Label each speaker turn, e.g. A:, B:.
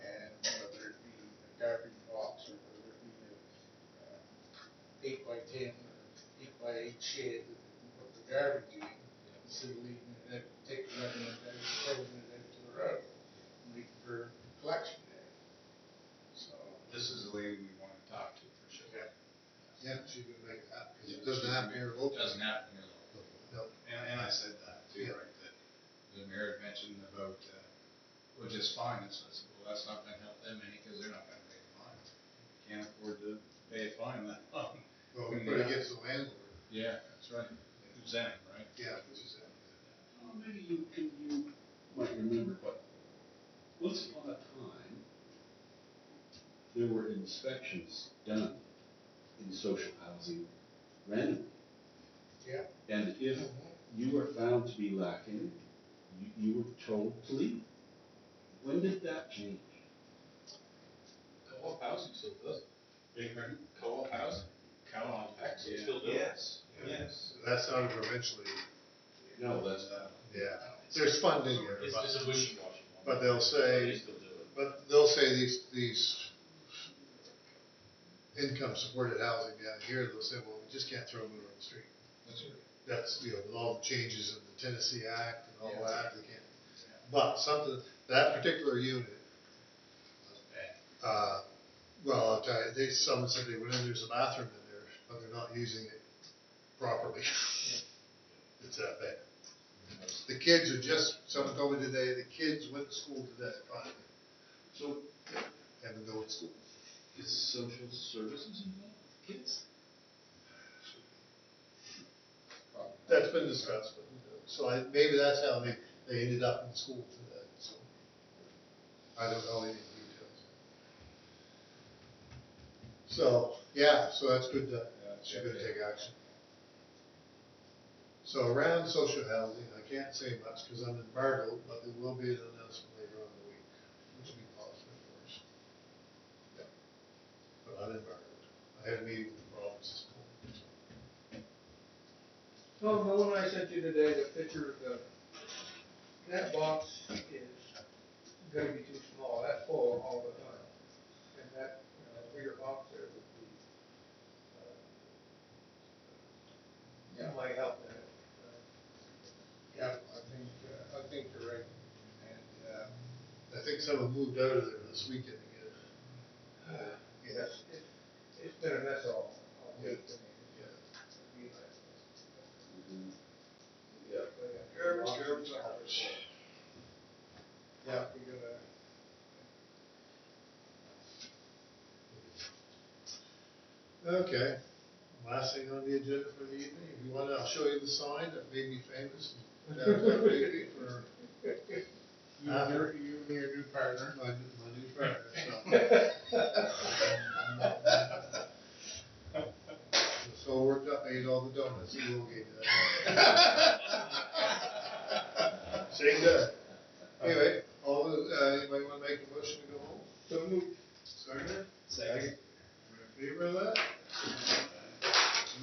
A: uh, shed that you put the garbage in, instead of leaving it, up- take the rubber and then throwing it into the road, leaving for collection day. So,
B: This is the lady we wanna talk to for sure.
A: Yeah. yeah, she would make that, because it doesn't happen here
B: It
A: locally.
B: doesn't happen here. though.
A: No,
B: And, and I said that too,
A: Yeah.
B: right, that the mayor had mentioned about, uh, well, just fines, I said, well, that's not gonna help them any, cause they're not gonna pay the fines. Can't afford to pay a fine that long.
A: well, but it gets the landlord,
B: Yeah, that's right, Zen, right?
A: yeah, which is, uh,
C: Well, maybe you, and you might remember, but once upon a time, there were inspections done in social housing randomly.
A: yeah.
C: And if you were found to be lacking, you, you were told to leave. When did that change?
D: Co-op housing still does,
B: Big Red,
D: co-op housing,
B: co-op,
D: actually
B: yeah.
D: still does.
E: Yes, yes.
A: That's how it eventually,
C: No,
B: That's, uh,
A: yeah, there's funding there,
D: It's,
A: but-
D: it's a wishy-washy one.
A: but they'll say.
D: They still do it.
A: But they'll say these, these income supported housing down here, they'll say, well, we just can't throw them on the street.
B: that's right.
A: That's, you know, with all the changes in the Tennessee Act and all
B: Yeah.
A: that, they can't.
B: Yeah.
A: But something, that particular unit,
B: That's bad.
A: uh, well, I'll tell you, they, someone said they went in, there's a bathroom in there, but they're not using it properly. It's that bad. The kids are just, someone told me today, the kids went to school today, finally. So, haven't gone to school.
C: is social services involved? Kids?
A: That's been discussed, but, you know, so I, maybe that's how they, they ended up in school today, so. I don't know any details. So, yeah, so that's good to,
B: Yeah, it's
A: should to
B: good.
A: take action. So around social housing, I can't say much because I'm embargoed, but there will be an announcement later on in the week, which will be positive for us. Yeah. But I'm embargoed. I had a meeting with the province this morning, so.
E: Tom, the one I sent you today, the picture of the, that box is gonna be too small, that's full all the time. And that, you know, bigger box there would be, uh, that might help that. uh,
A: Yeah, I think, uh, I think you're right, and, uh. I think someone moved out of there this weekend again.
E: Yes, Uh, it's, it's been a mess all, all
A: Yeah.
E: week. I mean,
A: Yeah.
E: it'd be like-
A: Yeah.
E: but, uh,
A: Garbage,
E: box is
A: garbage,
E: full.
A: garbage. Yeah.
E: We gotta,
A: Okay, last thing on the agenda for the evening, if you wanna, I'll show you the sign that made me famous in downtown Digby for. You and your, you and your new partner. My, new- my new partner, so. So worked up, ate all the donuts, you will get that. Say good. Anyway, all, the- uh, anybody wanna make a motion to go home?
E: so move.
A: Second? Second. Favor of that?